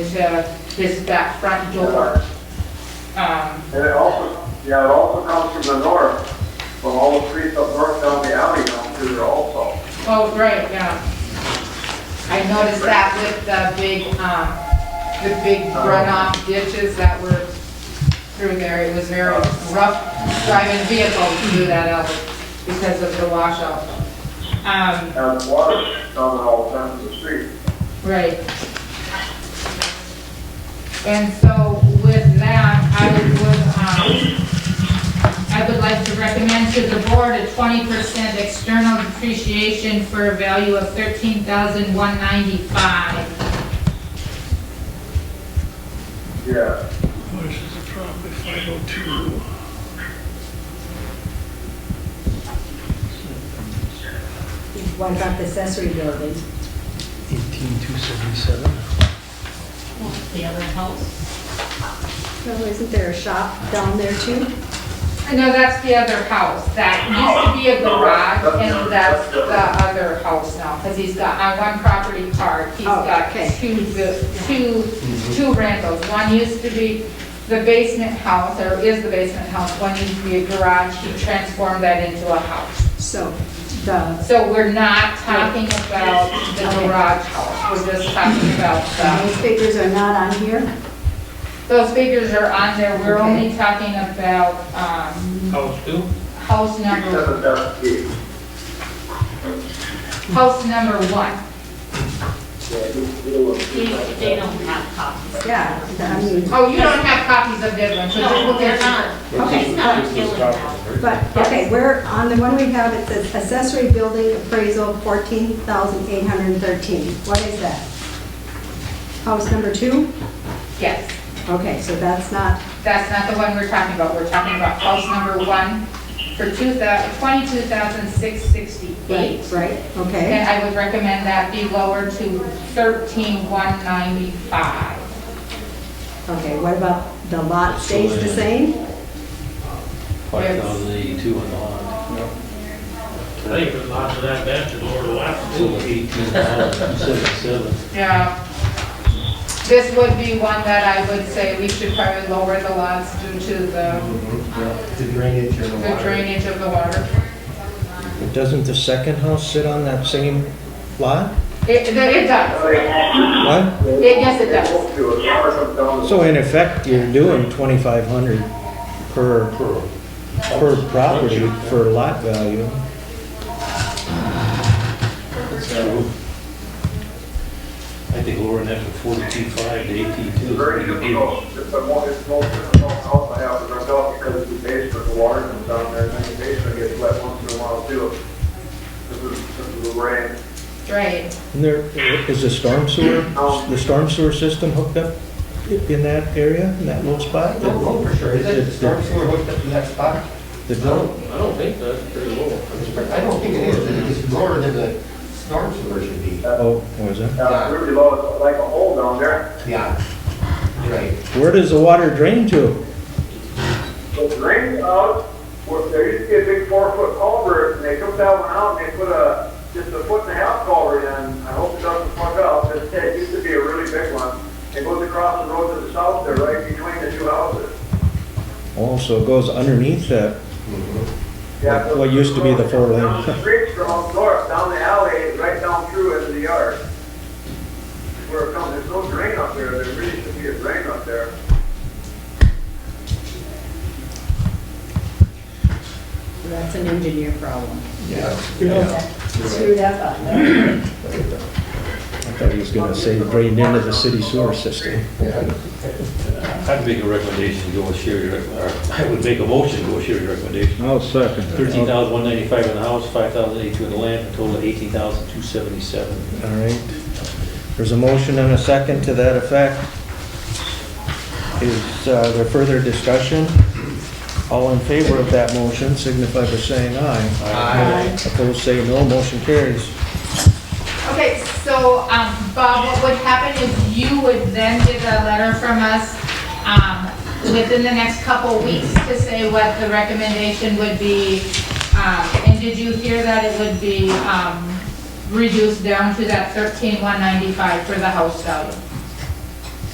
into his, that front door. Um, And it also, yeah, it also comes from the north, from all the streets up north down the alley down through there also. oh, right, yeah. I noticed that with the big, um, the big runoff ditches that were through there. It was very rough driving vehicles through that alley because of the washout. Um, And water coming all down the street. right. And so with that, I would, um, I would like to recommend to the board a twenty percent external depreciation for a value of thirteen thousand one ninety-five. Yeah, Where's the property, five oh two? What about the accessory building? Eighteen two seventy-seven. The other house? Well, isn't there a shop down there too? No, that's the other house, that used to be a garage, and that's the other house now, because he's got, on one property part, he's Oh, got okay. two, bu- two, two rentals. One used to be the basement house, or is the basement house, one used to be a garage, he transformed that into a house. So the, So we're not talking about the garage house, we're just talking about the, those figures are not on here? those figures are on there, we're Okay. only talking about, um, House two? house because number, of that key. house number one. Yeah, you- you will They, see that. they don't have copies. Yeah, I mean, Oh, you don't have copies of this one, so just No, look they're at not. He's not killing that. but, okay, we're on the one we have, it says accessory building appraisal fourteen thousand eight hundred and thirteen. What is that? House number two? Yes, Okay, so that's not, that's not the one we're talking about. We're talking about house number one for two thousand, twenty-two thousand six right, sixty-eight. right, okay. And I would recommend that be lowered to thirteen one ninety-five. Okay, what about the lot stays the same? Five thousand eighty-two on the lot. I think the lots of that bench is over the last So two. eighteen thousand seventy-seven. Yeah. This would be one that I would say we should probably lower the lots due to the The drainage and the the water. drainage of the water. But Doesn't the second house sit on that same lot? It, it does. What? It- yes, it does. They won't do it, water comes down the. So in effect, you're doing 2,500 per, per property for lot value. I think lowering that from forty-two-five to It's very eighteen-two. difficult, it's a more, it's more difficult house I have to rent out because the basement, the water comes down there, and then the basement gets wet once in a while too. This is, this is the rain. Right. And there, is the storm sewer, the storm sewer system hooked up in that area, in that little spot? Oh, for sure, is it, the storm sewer hooked up to that spot? The- I don't, I don't think that's very low. I don't think it is, it's lower than the storm sewer should be. Oh, was it? Uh, it's really low, it's like a hole down there, Yeah. Right. Where does the water drain to? but the rain out, where there used to be a big four foot culvert, and they took that one out, and they put a, just a foot and a half culvert in, I hope it doesn't plug up, it, it used to be a really big one. It goes across the road to the south there, right between the two houses. Also goes underneath that. Yeah, so- What used to be the four lane. Down the street from north, down the alley, right down through into the yard. Where it comes, there's no drain up there, there really should be a drain up there. That's an engineer problem. Yeah. Screwed up on that. I thought he was gonna say drained into the city sewer system. I'd make a recommendation, to go with Sherry, rec- or I would make a motion, to go with Sherry's recommendation. I'll second Thirteen thousand one ninety-five on the house, five thousand eighty-two on the land, a total of eighteen thousand two seventy-seven. All right. There's a motion and a second to that effect. Is uh, there further discussion? All in favor of that motion signify by saying aye. Aye. Opposed, say no. Motion carries. Okay, so, um, Bob, what would happen is you would then get a letter from us, um, within the next couple weeks to say what the recommendation would be. Um, and did you hear that it would be, um, reduced down to that thirteen one ninety-five for the house value?